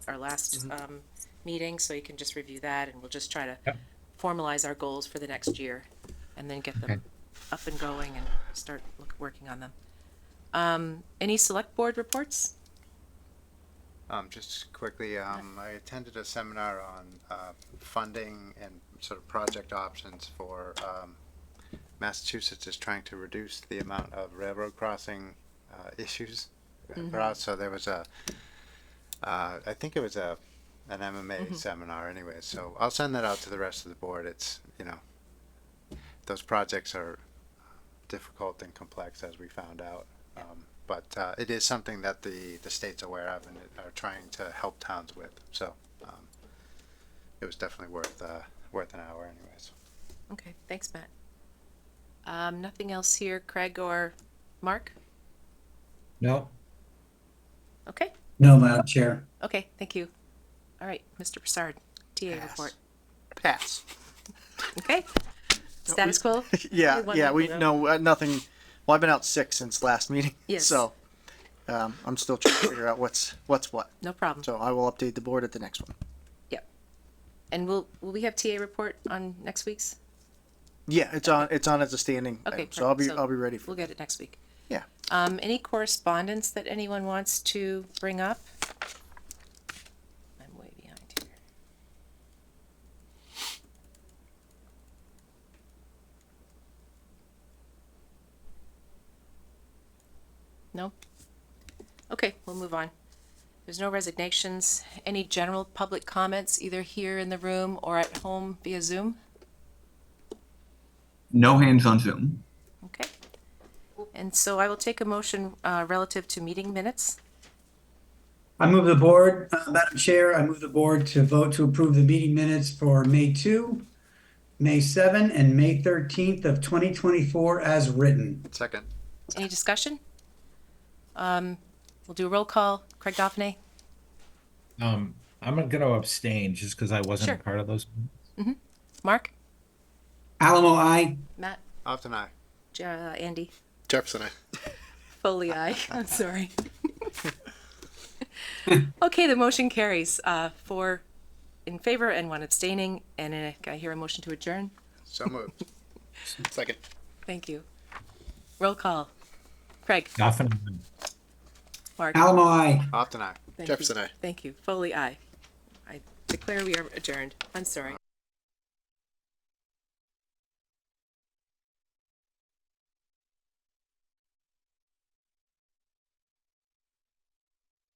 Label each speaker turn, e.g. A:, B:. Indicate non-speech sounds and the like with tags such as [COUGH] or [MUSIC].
A: our last
B: Mm-hmm.
A: um, meeting, so you can just review that, and we'll just try to
C: Yep.
A: formalize our goals for the next year, and then get them
C: Okay.
A: up and going and start look, working on them. Um, any select board reports?
D: Um, just quickly, um, I attended a seminar on, uh, funding and sort of project options for, um, Massachusetts is trying to reduce the amount of railroad crossing, uh, issues. across. So there was a, uh, I think it was a, an MMA seminar anyway, so I'll send that out to the rest of the board. It's, you know, those projects are difficult and complex as we found out. Um, but uh, it is something that the, the state's aware of and are trying to help towns with. So um, it was definitely worth uh, worth an hour, anyways.
A: Okay, thanks, Matt. Um, nothing else here, Craig or Mark?
C: No,
A: Okay,
E: No, Madam Chair.
A: okay, thank you. All right, Mr. Broussard, TA
D: Pass.
A: report.
B: Pass.
A: Okay. Status quo?
B: [LAUGHS] Yeah,
A: Only one
B: yeah, we,
A: vote.
B: no, uh, nothing, well, I've been out sick since last meeting. [LAUGHS]
A: Yes.
B: So, um, I'm still trying to figure out what's, what's what.
A: No problem.
B: So I will update the board at the next one.
A: And will, will we have TA report on next week's?
B: Yeah, it's on, it's on as a standing
A: Okay,
B: item, so I'll be,
A: perfect. So
B: I'll be ready for
A: We'll get it next week.
B: Yeah.
A: Um, any correspondence that anyone wants to bring up? I'm way behind here. No? Okay, we'll move on. There's no resignations. Any general public comments, either here in the room or at home via Zoom?
F: No hands on Zoom.
A: Okay. And so I will take a motion uh, relative to meeting minutes.
E: I move the board, uh, Madam Chair, I move the board to vote to approve the meeting minutes for May 2, May 7, and May 13th of 2024 as written.
D: Second,
A: Any discussion? Um, We'll do a roll call. Craig Daphne?
C: um, I'm gonna abstain just because I wasn't
A: Sure.
C: a part of those.
A: Mark?
E: Alamo, I.
A: Matt?
D: Often I.
A: J- uh, Andy?
D: Jefferson I.
A: Foley, [LAUGHS] aye. I'm sorry. Okay, the motion carries, uh, four in favor and one abstaining, and uh, I hear a motion to adjourn.
D: So moved. [LAUGHS] Second.
A: Thank you. Roll call. Craig?
C: Goffin,
A: Mark?
E: Alamo, I.
D: Often I.
A: Thank you.
D: Jefferson I.
A: Thank you. Foley, aye. I declare we are adjourned. I'm sorry.